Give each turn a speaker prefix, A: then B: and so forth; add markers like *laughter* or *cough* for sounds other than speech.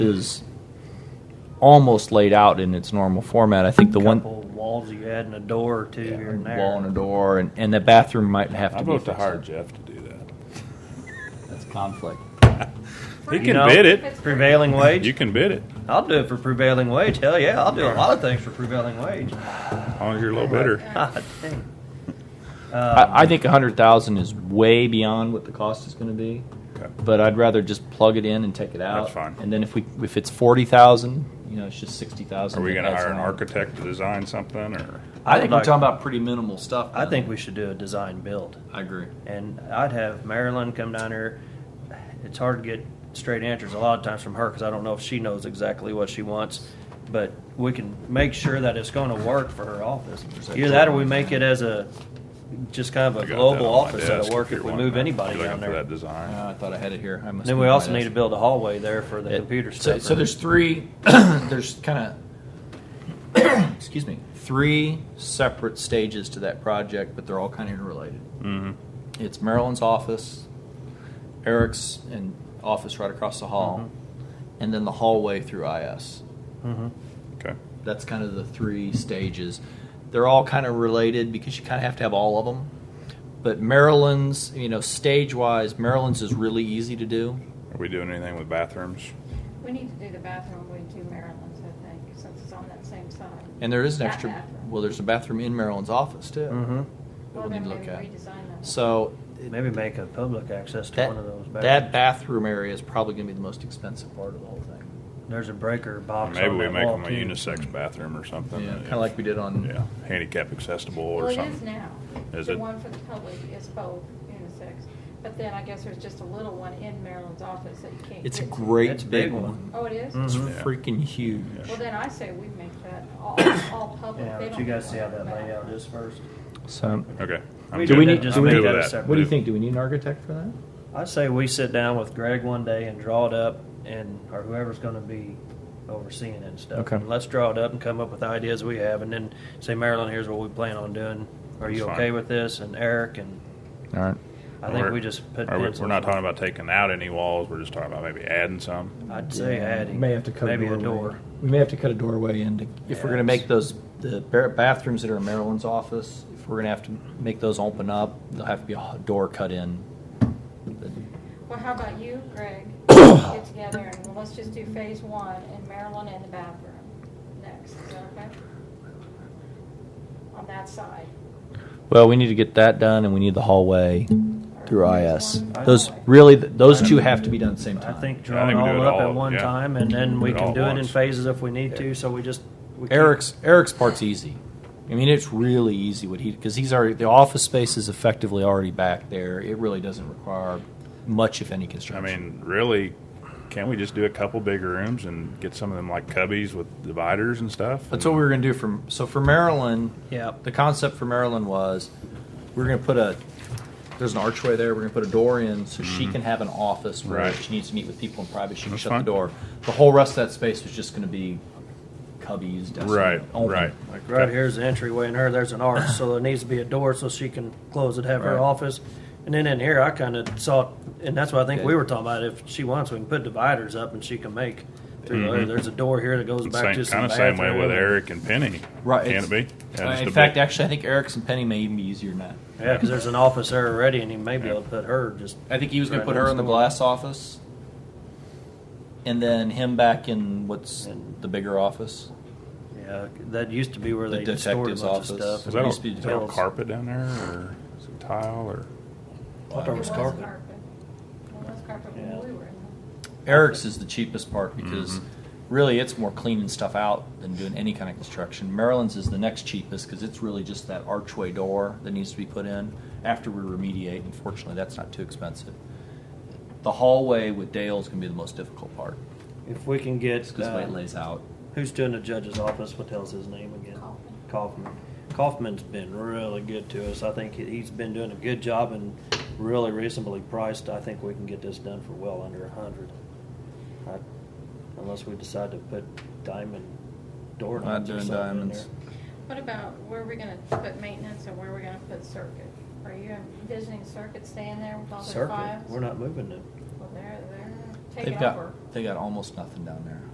A: is almost laid out in its normal format. I think the one
B: Couple walls you had and a door or two here and there.
A: wall and a door, and, and the bathroom might have to
C: I
A: be.
C: vote to
A: fixed.
C: hire Jeff to do that.
A: That's conflict.
C: He
B: You
C: can
B: know,
C: bid it.
B: Prevailing
C: You
B: wage.
C: can bid it,
B: I'll do it for prevailing wage. Hell yeah, I'll do a lot of things for prevailing
C: *laughs*
B: wage. *laughs*
C: as long as you're a little better.
B: God dang. Um,
A: I, I think a hundred thousand is way beyond what the cost is going to be.
C: Okay.
A: But I'd rather just plug it in and take it out.
C: That's fine.
A: And then if we if it's forty thousand, you know, it's just sixty thousand.
C: Are we gonna hire an architect to design something, or?
A: I think we're
B: Like-
A: talking about pretty minimal stuff.
B: I
A: man.
B: think we should do a design build.
A: I agree.
B: And I'd have Marilyn come down here. It's hard to get straight answers a lot of times from her because I don't know if she knows exactly what she wants. But we can make sure that it's going to work for her office. Either that or we make it as a, just kind of
C: I
B: a
C: got
B: global
C: that on my
B: office that'll
C: desk
B: work
C: you're
B: if we
C: wanting
B: move
C: that.
B: anybody
C: You're
B: down
C: looking for
B: there.
C: That design.
A: Uh, I thought I had it here. I must.
B: Then
A: be
B: we
A: on my
B: also need
A: desk.
B: to build a hallway there for the
A: It-
B: computer
A: so,
B: stuff.
A: so there's three *clears throat* there's kind of *clears throat* excuse me three separate stages to that project but they're all kind of interrelated
B: Mm-hmm.
C: Mhm.
A: it's marilyn's office eric's and office right across the hall
B: Mm-hmm.
A: and then the hallway through is
B: hmm
C: Okay.
A: that's kind of the three stages. They're all kind of related because you kind of have to have all of them. But Maryland's, you know, stage wise, Maryland's is really easy to do.
C: Are we doing anything with bathrooms?
D: We need to do the bathroom, we do Maryland's, I think, since it's on that same side.
A: And there is an
D: That
A: extra,
D: bathroom.
A: well, there's a bathroom in Maryland's office too
B: hmm
A: that we'll
D: Well,
A: need
D: then
A: to
D: maybe
A: look at.
D: redesign that.
A: So it-
B: Maybe make a public access to
A: that,
B: one of those.
A: that bathroom area is probably going to be the most expensive part of the whole thing.
B: There's a breaker box.
C: Maybe
B: on
C: we
B: that
C: make
B: wall,
C: them a
B: too.
C: unisex bathroom or something.
A: Yeah,
C: that
A: kind of like we did on.
C: Yeah, handicap accessible
D: Well,
C: or
D: it is
C: something.
D: now.
C: Is
D: The
C: it?
D: one for the public is both unisex, but then I guess there's just a little one in Maryland's office that you can't get.
A: It's a
D: to.
A: great
B: It's a
A: big
B: big
A: one.
B: one.
D: Oh, it is?
A: It's
B: Mhm.
C: Yeah.
A: freaking huge.
D: Well, then I say we make that all, all public.
B: Yeah,
D: They
B: but
D: don't
B: you
D: have
B: guys
D: to
B: see how
D: worry
B: that
D: about it.
B: layout is first.
A: So,
C: Okay. I'm
B: We
C: good
A: do we
C: with
A: need-
C: that.
A: just
C: I'm
A: make
C: good
A: that
C: with
B: a separate-
A: what do you think? Do we need an architect for that?
B: I'd say we sit down with Greg one day and draw it up, and or whoever's going to be overseeing it and stuff.
A: Okay.
B: And let's draw it up and come up with ideas we have, and then say, Marilyn, here's what we plan on doing. Are you
C: That's fine.
B: okay with this? And Eric and
A: All right.
B: I think
C: We're-
B: we just put.
C: are we-
B: pencils
C: We're
B: on-
C: not talking about taking out any walls, we're just talking about maybe adding some.
B: I'd say
A: Yeah,
B: adding.
A: we May have to cut
B: maybe
A: a, doorway.
B: door.
A: We may have to cut a doorway in to, if we're going to
B: Yes.
A: make those the ba- bathrooms that are in Maryland's office. If we're going to have to make those open up, there'll have to be a door cut in.
D: Well, how about you, Greg? Get together and well, let's just do phase one in Maryland and the bathroom next, is that okay? On that side.
A: Well, we need to get that done, and we need the hallway
D: or
A: through
D: phase
A: IS.
D: one
B: I-
A: Those
D: hallway.
A: really, th- those two have to be done at the same
B: I
A: time.
B: think
C: Yeah, I
B: drawing
C: think we do
B: all
C: it
B: up
C: all,
B: at one
C: yeah.
B: time, and then we
C: Do it
B: can
C: all
B: do it in
C: once.
B: phases if we need to. So we just we keep-
A: Eric's Eric's part's easy. I mean, it's really easy what he because he's already the office space is effectively already back there. It really doesn't require much, if any,
C: I
A: construction.
C: mean, really, can't we just do a couple bigger rooms and get some of them like cubbies with dividers and stuff?
A: That's what we were going to do from. So for Maryland,
B: Yeah.
A: the concept for Maryland was we are going to put a. There's an archway there. We're going to put a door in so she can have an office where
C: Mm-hmm. Right.
A: if she needs to meet with people in private. She can
C: That's
A: shut the
C: fine.
A: door. The whole rest of that space was just going to be cubbies. desks,
C: Right,
A: open.
C: right.
B: Like right here's the entryway, and her there's an arch, so there needs to be a door so she can close it, have
A: Right.
B: her office. And then in here, I kind of saw, and that's what I think we were talking about. If she wants, we can put dividers up, and she can make through there.
C: Mhm.
B: There's a door here that goes back
C: Same,
B: to some
C: kind of same way
B: bathroom.
C: with Eric and Penny.
A: Right,
C: Can
A: it's-
C: it be? Yeah,
A: Uh,
C: just
A: in
C: a
A: fact,
C: big-
A: actually, I think Eric's and Penny may even be easier than that.
B: Yeah, because there's an office there already, and he may be able to put her just.
A: I think he was going
B: Right
A: to put her
B: next
A: in the
B: door.
A: glass office, and then him back in what's
B: And-
A: the bigger office.
B: Yeah, that used to be where
A: The
B: they stored a
A: detective's
B: bunch of
A: office.
B: stuff.
C: Is
A: it
C: that,
A: used to
C: a,
A: be
C: is that a
B: built.
C: carpet down there, or is it tile, or?
B: I thought it was
D: It was
B: carpet.
D: carpet. It was carpet when
B: Yeah.
D: we were in there.
A: Eric's is the cheapest part because really it's more cleaning stuff out than doing any kind of construction. Maryland's is the next cheapest because it's really just that archway door that needs to be put in after we remediate. Unfortunately, that's not too expensive. The hallway with Dale's gonna be the most difficult part
B: If we can get
A: because the way
B: uh,
A: it lays out.
B: Who's doing the judge's office? What the hell's his name again?
D: Kaufman.
B: Kaufman. Kaufman's been really good to us. I think he- he's been doing a good job and really reasonably priced. I think we can get this done for well under a hundred. I- Unless we decide to put diamond door
A: Not
B: knobs or
A: doing
B: something in
A: diamonds.
D: What about where we're gonna put maintenance and where we're gonna put circuit? Are you envisioning circuit staying there with all
B: there.
D: the
B: Circuit,
D: files?
B: we're not moving them.
D: Well, they're, they're, take
A: They've
D: it over.
A: got, they got almost nothing down there.